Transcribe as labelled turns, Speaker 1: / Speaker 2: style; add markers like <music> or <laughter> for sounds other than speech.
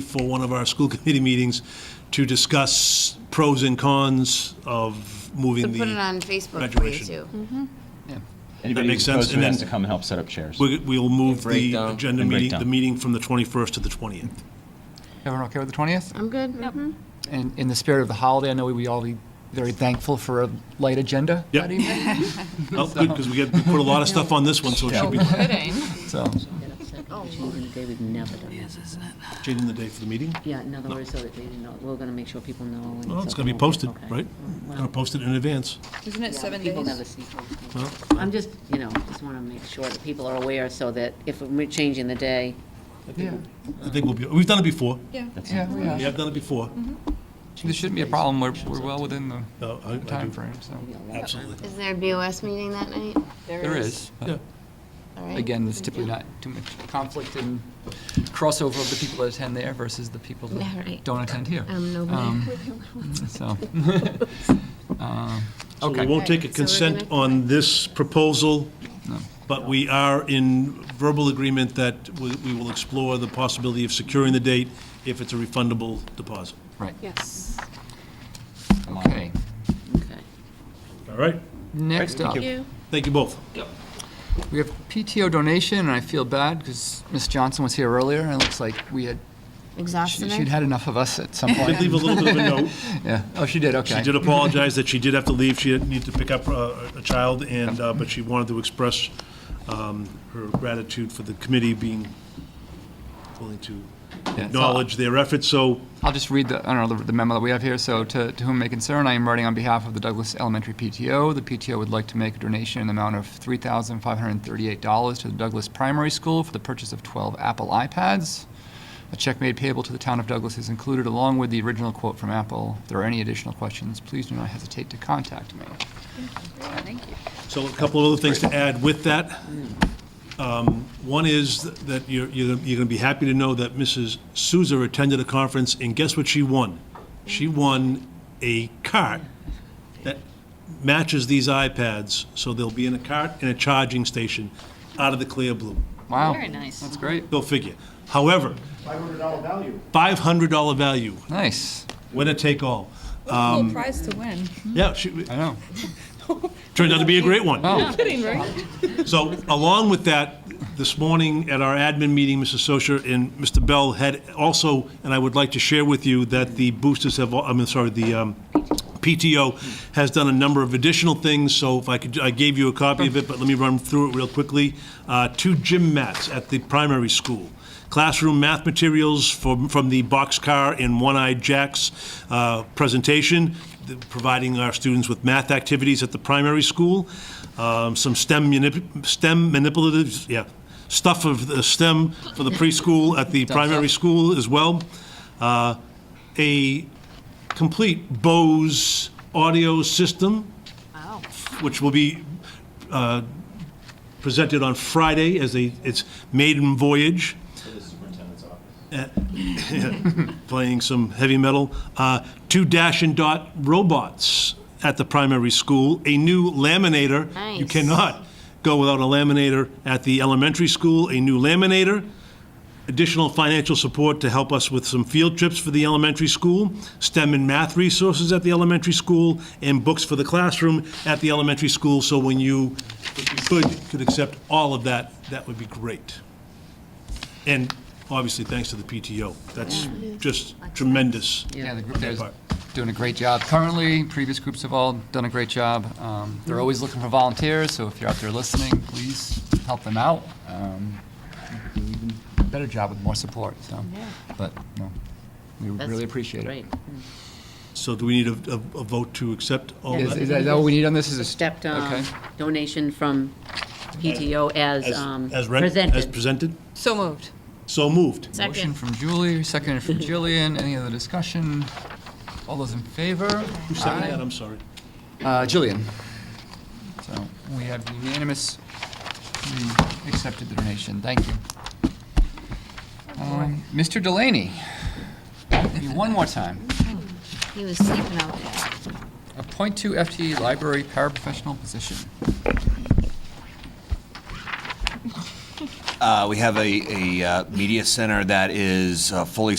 Speaker 1: for one of our school <laughs> committee meetings to discuss pros and cons of moving
Speaker 2: Could put it
Speaker 1: the,
Speaker 2: on Facebook for you
Speaker 1: graduation.
Speaker 2: too.
Speaker 1: That makes
Speaker 3: Anybody
Speaker 1: sense,
Speaker 3: who's
Speaker 1: and then-
Speaker 3: supposed to come and help set up chairs.
Speaker 1: we- we'll move the
Speaker 4: breakdown.
Speaker 1: agenda
Speaker 3: And
Speaker 1: meeting,
Speaker 3: breakdown.
Speaker 1: the meeting from the 21st to the 20th.
Speaker 5: Everyone okay with the 20th?
Speaker 2: I'm good. mhm.
Speaker 5: And in the spirit of the holiday, I know we would all be very thankful for a light agenda
Speaker 1: Yep.
Speaker 5: that evening.
Speaker 1: <laughs> Oh, good, because we get, we put a lot of stuff on this one, so it should be
Speaker 5: So, Oh,
Speaker 6: Changing the day, we've never done that.
Speaker 1: changing the day for the meeting.
Speaker 6: Yeah, in other words, so that they didn't know, we're gonna make sure people know. and
Speaker 1: Well, it's
Speaker 6: so-
Speaker 1: going to be posted,
Speaker 6: okay.
Speaker 1: right? Going to
Speaker 6: Well,
Speaker 1: post it in advance.
Speaker 7: Isn't it
Speaker 6: yeah,
Speaker 7: seven
Speaker 6: People never
Speaker 7: days?
Speaker 6: see.
Speaker 1: Well,
Speaker 6: I'm just, you know, just wanna make sure that people are aware so that if we're changing the day,
Speaker 5: yeah,
Speaker 1: I think we'll be, we've done it before.
Speaker 7: Yeah.
Speaker 3: That's-
Speaker 5: yeah, we
Speaker 1: We
Speaker 5: are.
Speaker 1: have done it before.
Speaker 5: This shouldn't be a problem. We're, we're well within the
Speaker 1: No, I- I do.
Speaker 5: timeframe, so.
Speaker 6: you know, that-
Speaker 1: Absolutely.
Speaker 2: Is there a BOS meeting that night?
Speaker 5: There is. but
Speaker 1: Yeah.
Speaker 2: All right.
Speaker 5: Again, there's typically not too much conflict and crossover of the people that attend there versus the people
Speaker 2: Yeah,
Speaker 5: that
Speaker 2: right.
Speaker 5: don't attend here.
Speaker 2: I'm nobody.
Speaker 5: Um,
Speaker 2: <laughs>
Speaker 5: So, um,
Speaker 1: So we
Speaker 5: okay.
Speaker 1: won't take a
Speaker 2: Okay, so we're gonna-
Speaker 1: consent on this proposal,
Speaker 5: No.
Speaker 1: but we are in verbal agreement that we we will explore the possibility of securing the date if it's a refundable deposit.
Speaker 5: Right,
Speaker 7: Yes.
Speaker 5: okay.
Speaker 6: Okay.
Speaker 1: All right?
Speaker 5: Next up.
Speaker 1: Thank you both.
Speaker 5: We have PTO donation, and I feel bad because Ms. Johnson was here earlier, and it looks like we had, she-
Speaker 2: Exhausted.
Speaker 5: she'd had enough of us at some <laughs>
Speaker 1: Did
Speaker 5: point.
Speaker 1: leave a little bit of
Speaker 2: <laughs>
Speaker 1: a note.
Speaker 5: Yeah, oh, she did, okay.
Speaker 1: She did apologize that she did have to leave. She needed to pick up uh, a child, and, uh, but she wanted to express um, her gratitude for the committee being willing to
Speaker 5: so-
Speaker 1: acknowledge their efforts. So
Speaker 5: I'll just read the, I don't know, the- the memo that we have here. So to, to whom may concern, I am writing on behalf of the Douglas Elementary PTO. The PTO would like to make a donation in the amount of $3,538 to the Douglas Primary School for the purchase of 12 Apple iPads. A check made payable to the town of Douglas is included along with the original quote from Apple. If there are any additional questions, please do not hesitate to contact me.
Speaker 1: So a couple of other things to add with that. Um, One is that you're, you're going to be happy to know that Mrs. Souza attended a conference, and guess what she won? She won a cart that matches these iPads, so they'll be in a cart and a charging station out of the clear blue.
Speaker 5: Wow.
Speaker 6: Very nice.
Speaker 5: That's great.
Speaker 1: Go figure. However. $500 value. $500 value,
Speaker 5: Nice.
Speaker 1: winner take all.
Speaker 7: Little prize to win.
Speaker 1: Yeah, she,
Speaker 5: I know.
Speaker 1: turned out to be a great one.
Speaker 5: Oh,
Speaker 7: Kidding, right?
Speaker 1: So along with that, this morning at our admin meeting, Mrs. Socia and Mr. Bell had also, and I would like to share with you that the boosters have, I mean, sorry, the um, PTO has done a number of additional things, so if I could, I gave you a copy of it, but let me run through it real quickly. Uh, Two gym mats at the primary school classroom math materials from, from the Boxcar and One Eye Jack's uh, presentation, the- providing our students with math activities at the primary school, um, some STEM, manip- STEM manipulatives, yeah, stuff of the STEM for the preschool at the primary school as well. Uh, A complete Bose audio system, which will be uh, presented on Friday as a, its maiden voyage Uh, <laughs> playing some heavy metal. Uh, two Dash and Dot robots at the primary school, a new laminator. You
Speaker 2: Nice.
Speaker 1: cannot go without a laminator at the elementary school, a new laminator. Additional financial support to help us with some field trips for the elementary school, STEM and math resources at the elementary school, and books for the classroom at the elementary school. So when you, if you could, could accept all of that, that would be great. And obviously, thanks to the PTO. That's just tremendous.
Speaker 5: yeah, the group there is doing a great job currently. Previous groups have all done a great job. Um, They're always looking for volunteers, so if you're out there listening, please help them out. Um, you can do even Better job with more support, so. But, no, we
Speaker 6: That's
Speaker 5: really appreciate it.
Speaker 6: Great.
Speaker 1: So do we need a, a a vote to accept all
Speaker 5: Is
Speaker 1: that?
Speaker 5: is that all we need on this? Is a
Speaker 6: Stepped
Speaker 5: Okay.
Speaker 6: um, donation from PTO as um,
Speaker 1: As read, as
Speaker 6: presented.
Speaker 1: presented?
Speaker 7: So moved.
Speaker 1: So moved.
Speaker 5: Motion
Speaker 2: Second.
Speaker 5: from Julie, seconded
Speaker 6: <laughs>
Speaker 5: from Jillian. Any other discussion? All those in favor?
Speaker 1: Who seconded that? I'm sorry.
Speaker 5: Uh, Jillian. So we have unanimous, we accepted the donation. Thank you. Um, Mr. Delaney, you one more time.
Speaker 2: He was sleeping out there.
Speaker 5: A point two FTE E library paraprofessional position.
Speaker 4: Uh, We have a, a uh, media center that is uh, fully